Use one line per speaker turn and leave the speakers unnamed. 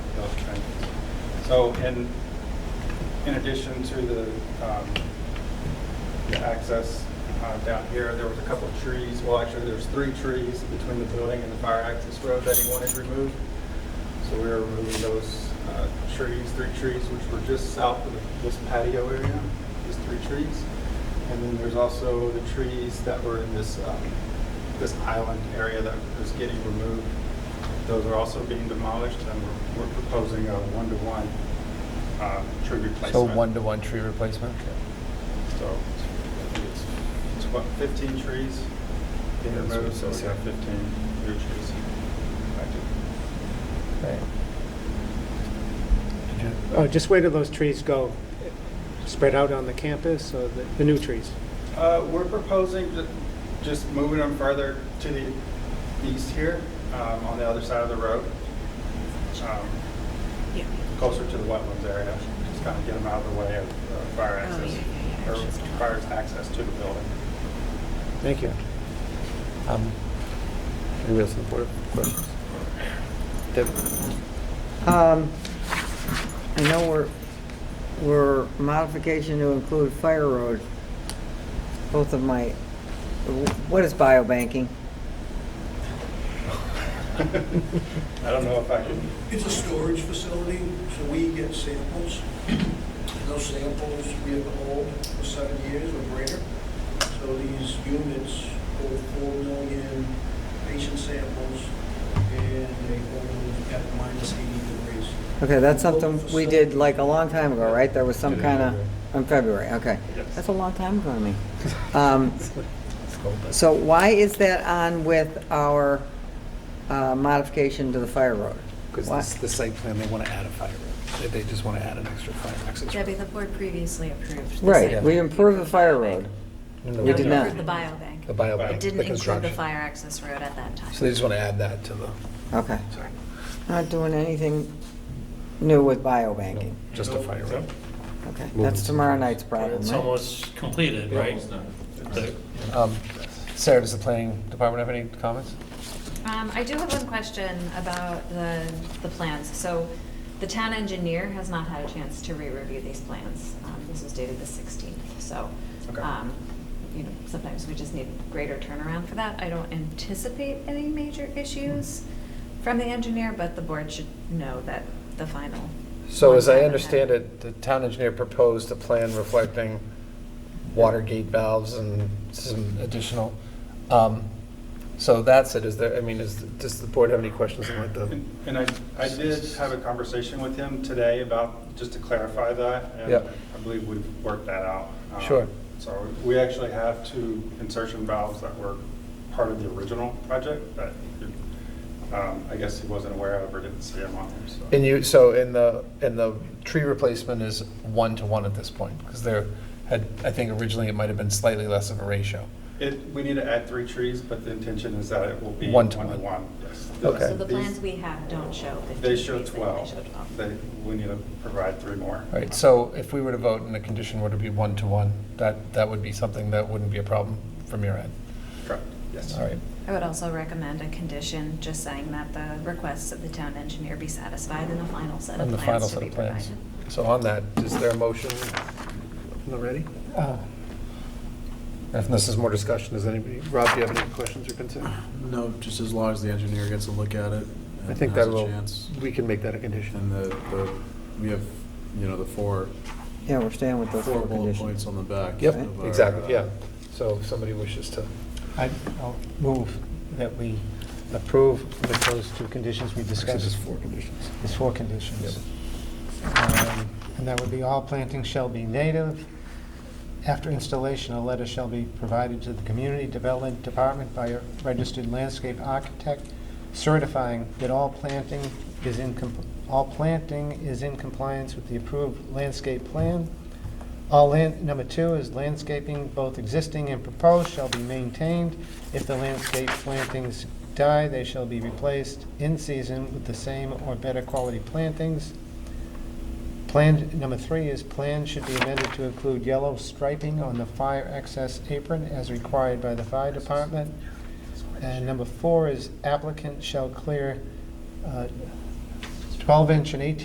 So in, in addition to the, um, the access uh, down here, there was a couple of trees, well, actually, there's three trees between the building and the fire access road that he wanted removed. So we are removing those uh, trees, three trees, which were just south of this patio area, these three trees. And then there's also the trees that were in this, um, this island area that is getting removed. Those are also being demolished, and we're- we're proposing a one-to-one uh, tree replacement.
So one-to-one tree replacement?
So I think it's, it's what, 15 trees being
That's what
removed, so
it
we
says
have
here.
15 new trees. affected.
Okay.
Oh, just where do those trees go? Spread out on the campus or the, the new trees?
Uh, We're proposing ju- just moving them further to the east here, um, on the other side of the road, um,
Yeah.
closer to the wetlands area, just kind of get them out of the way of uh, fire
Oh, yeah,
access,
yeah, yeah,
or
it's just-
fire's access to the building.
Thank you.
Um, Anybody else on the board have questions? Deb?
Um, I know we're, we're modification to include fire road. Both of my, what is biobanking?
I don't know if I can,
It's a storage facility, so we get samples. Those samples we have to hold for seven years or greater. So these units hold four million patient samples, and they hold them at minus eighty degrees.
Okay, that's something we did like a long time ago, right? There was some kind of, in February, okay.
Yes.
That's a long time ago to me. Um, So why is that on with our uh, modification to the fire road?
Because
Why-
this, the site plan, they want to add a fire road. They, they just want to add an extra fire access road.
Debbie, the board previously approved. the
Right,
site
we
plan.
improved the fire road.
No,
We
No,
did
you
not.
approved the biobank.
The bio.
But
It didn't include the
construction.
fire access road at that time.
So they just want to add that to the,
Okay.
sorry.
Not doing anything new with biobanking.
Just a fire road.
Okay, that's tomorrow night's problem,
It's
right?
almost completed, right? The-
Um, Sarah, does the planning department have any comments?
Um, I do have one question about the, the plans. So the town engineer has not had a chance to re-review these plans. Um, This was dated the 16th, so,
Okay.
um, you know, sometimes we just need greater turnaround for that. I don't anticipate any major issues from the engineer, but the board should know that the final.
So
ones
as I
haven't
understand
had-
it, the town engineer proposed a plan reflecting water gate valves and some additional. um, So that's it, is there, I mean, is, does the board have any questions on like the?
And and I, I did have a conversation with him today about, just to clarify that. and
Yep.
I believe we've worked that out. Um,
Sure.
So we actually have two insertion valves that were part of the original project that um, I guess he wasn't aware of or didn't see him on there, so.
And you, so in the, in the tree replacement is one to one at this point? Because there had, I think originally it might have been slightly less of a ratio.
It, we need to add three trees, but the intention is that it will be
One to
one to
one.
one, yes.
Okay.
So the
These-
plans we have don't show 15
They show
trees, they only show
12. They, we need to provide three more.
All right, so if we were to vote and the condition were to be one to one, that, that would be something that wouldn't be a problem from your end?
Correct, yes.
All right.
I would also recommend a condition, just saying that the requests of the town engineer be satisfied in the final set of
And the final
plans to
set
be
of plans.
provided.
So on that, is there a motion from the ready? If this is more discussion, does anybody, Rob, do you have any questions or concerns?
No, just as long as the engineer gets a look at it.
I
and
think
has
that
a
will,
chance.
we can make that a condition.
And the, the, we have, you know, the four,
Yeah, we're staying with those
four
four
bullet
conditions.
points on the back.
Yep,
of our, uh,
exactly, yeah. So if somebody wishes to,
I- I'll move that we approve with those two conditions we
actually,
discussed.
there's four conditions.
There's four conditions. Um, And that would be all plantings shall be native. After installation, a letter shall be provided to the Community Development Department by a registered landscape architect certifying that all planting is in, comp- all planting is in compliance with the approved landscape plan. All land, number two is landscaping, both existing and proposed, shall be maintained. If the landscape plantings die, they shall be replaced in season with the same or better quality plantings. Plan, number three is plan should be amended to include yellow striping on the fire access apron as required by the fire department. And number four is applicant shall clear uh, 12-inch and 18